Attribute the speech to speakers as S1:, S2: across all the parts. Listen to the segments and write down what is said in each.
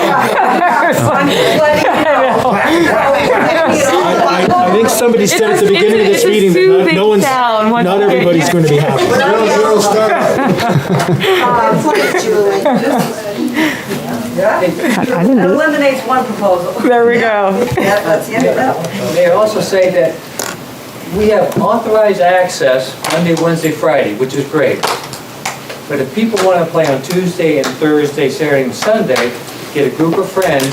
S1: already
S2: It's
S1: said at
S2: a-
S1: the beginning of
S2: it's
S1: this
S2: a-
S1: meeting that
S2: it's a
S1: not- no
S2: soothing
S1: one's,
S2: sound once
S1: not
S2: you get-
S1: everybody's going to be happy.
S3: Zero, zero, stop.
S4: That's what it's doing.
S5: Eliminates one proposal.
S2: There we go.
S5: Yeah, that's the end of that one.
S6: Mayor also say that we have authorized access Monday, Wednesday, Friday, which is great. But if people want to play on Tuesday and Thursday, Saturday and Sunday, get a group of friends,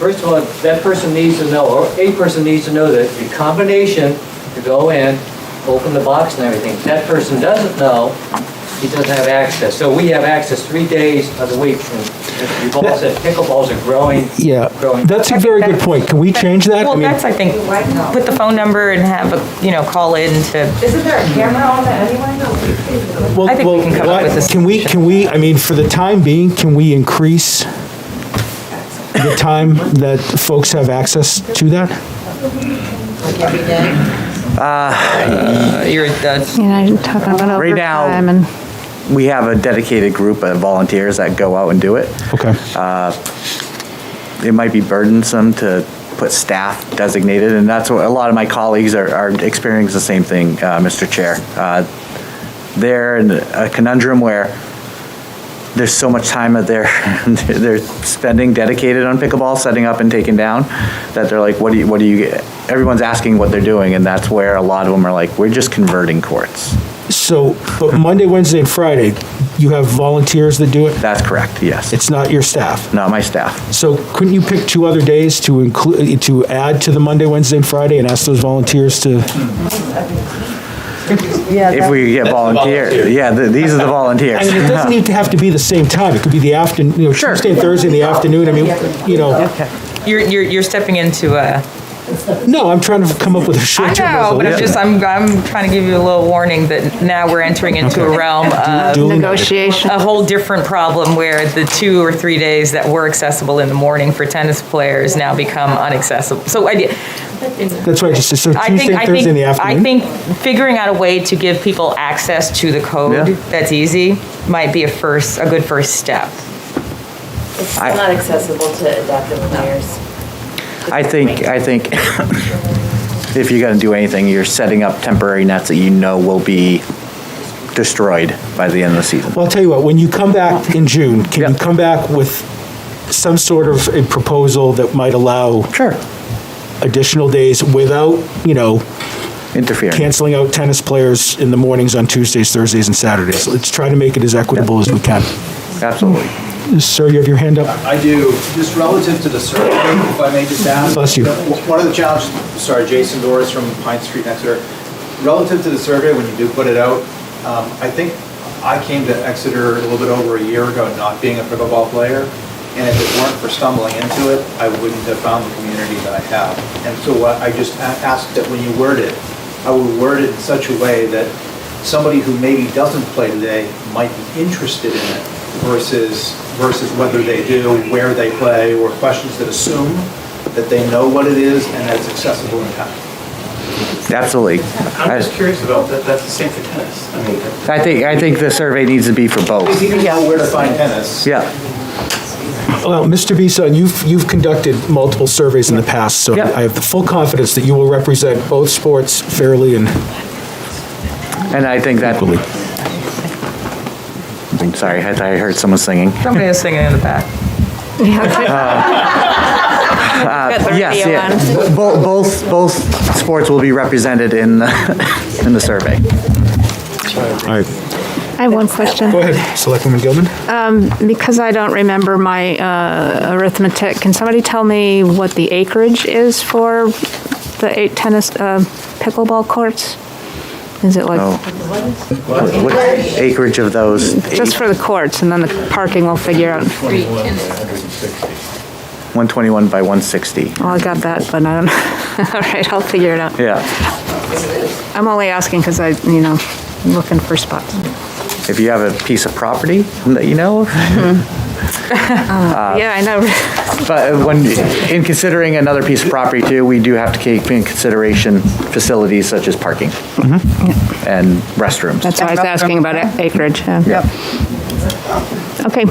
S6: first of all, that person needs to know, or a person needs to know that the combination to go in, open the box and everything, if that person doesn't know, he doesn't have access. So we have access three days of the week. And You've all said pickleballs are growing.
S1: Yeah,
S6: growing.
S1: that's a very good point. Can we change that? I
S2: Well,
S1: mean,
S2: that's, I think, put the phone number and have, a you know, call in to,
S4: Isn't there a camera on that anyway?
S1: well-
S2: I think we
S1: well,
S2: can come up
S1: why-
S2: with a
S1: Can we, can we, I mean, for the time being, can we increase the time that folks have access to that?
S4: Like every day?
S6: You're,
S2: uh,
S6: that's,
S7: You know, talking about
S8: Right now-
S7: overtime and
S8: We have a dedicated group of volunteers that go out and do it.
S1: Okay.
S8: It might be burdensome to put staff designated, and that's what, a lot of my colleagues are, are experiencing the same thing, uh, Mr. Chair. Uh, They're in a conundrum where there's so much time that they're, they're spending dedicated on pickleball, setting up and taking down, that they're like, what do you, what do you, everyone's asking what they're doing, and that's where a lot of them are like, we're just converting courts.
S1: So, but Monday, Wednesday, and Friday, you have volunteers that do it?
S8: That's correct, yes.
S1: It's not your staff?
S8: Not my staff.
S1: So couldn't you pick two other days to include, to add to the Monday, Wednesday, and Friday and ask those volunteers to?
S8: If we get volunteers, yeah, th- these are the
S1: I mean, it
S8: volunteers.
S1: doesn't need to have to be the same time. It could be the afternoon, you know, Tuesday and Thursday in the afternoon. I mean, you know,
S2: you're, you're you're stepping into a,
S1: no, I'm trying to come up with a
S2: I
S1: short-term
S2: know, but I'm
S1: resolution.
S2: just, I'm, I'm trying to give you a little warning that now we're entering into a realm of
S1: Duly noted.
S7: negotiation.
S2: a whole different problem where the two or three days that were accessible in the morning for tennis players now become unaccessible. So I,
S1: That's right, just, so
S2: I think,
S1: Tuesday,
S2: I
S1: and Thursday in
S2: think,
S1: the
S2: I
S1: afternoon.
S2: think figuring out a way to give people access to the code
S8: Yeah.
S2: that's easy might be a first, a good first step.
S4: It's still not accessible to adaptive players.
S8: I think, I think if you're gonna do anything, you're setting up temporary nets that you know will be destroyed by the end of the season.
S1: Well, I'll tell you what, when you come back in June, can you
S8: Yep.
S1: come back with some sort of a proposal that might allow
S8: Sure.
S1: additional days without, you know,
S8: Interfering.
S1: canceling out tennis players in the mornings on Tuesdays, Thursdays, and Saturdays. Let's try to make it as equitable as we can.
S8: Absolutely.
S1: Sir, you have your hand up?
S9: I do. Just relative to the survey, if I may just ask.
S1: Bless you.
S9: One of the challenges, sorry, Jason Doris from Pine Street next door. Relative to the survey, when you do put it out, um, I think I came to Exeter a little bit over a year ago, not being a pickleball player. And if it weren't for stumbling into it, I wouldn't have found the community that I have. And so what I just a- asked that when you word it, I would word it in such a way that somebody who maybe doesn't play today might be interested in it versus, versus whether they do, where they play, or questions that assume that they know what it is and that it's accessible in time.
S8: Absolutely.
S10: I'm just
S8: I
S10: curious about, that, that's the same for tennis. I mean, that-
S8: I think, I think the survey needs to be for
S9: If
S8: both.
S9: you know where to find tennis.
S8: Yeah.
S1: Well, Mr. Bisson, you've, you've conducted multiple surveys in the past, so
S8: Yeah.
S1: I have the full confidence that you will represent both sports fairly and
S8: And I think that,
S1: equally.
S8: I'm sorry, I thought I heard someone singing.
S2: Somebody was singing in the back.
S8: Yes, yeah. Both, both, both sports will be represented in, the in the survey.
S1: All right,
S7: I have one question.
S1: go ahead, Selectwoman Gilman.
S7: Because I don't remember my uh, arithmetic, can somebody tell me what the acreage is for the eight tennis, uh, pickleball courts? Is it
S8: No.
S7: like,
S8: What acreage of those?
S7: just for the courts, and then the parking will figure out?
S8: One twenty-one by one sixty.
S7: Well, Oh, I got that, but I don't, all right, I'll figure it out.
S8: Yeah.
S7: I'm only asking because I, you know, I'm looking for spots.
S8: If you have a piece of property that you know, of. Uh,
S7: Yeah, I know.
S8: but when, in considering another piece of property too, we do have to keep in consideration facilities such as parking and restrooms.
S7: Mm-hmm. That's why I was asking about acreage. yeah. Okay.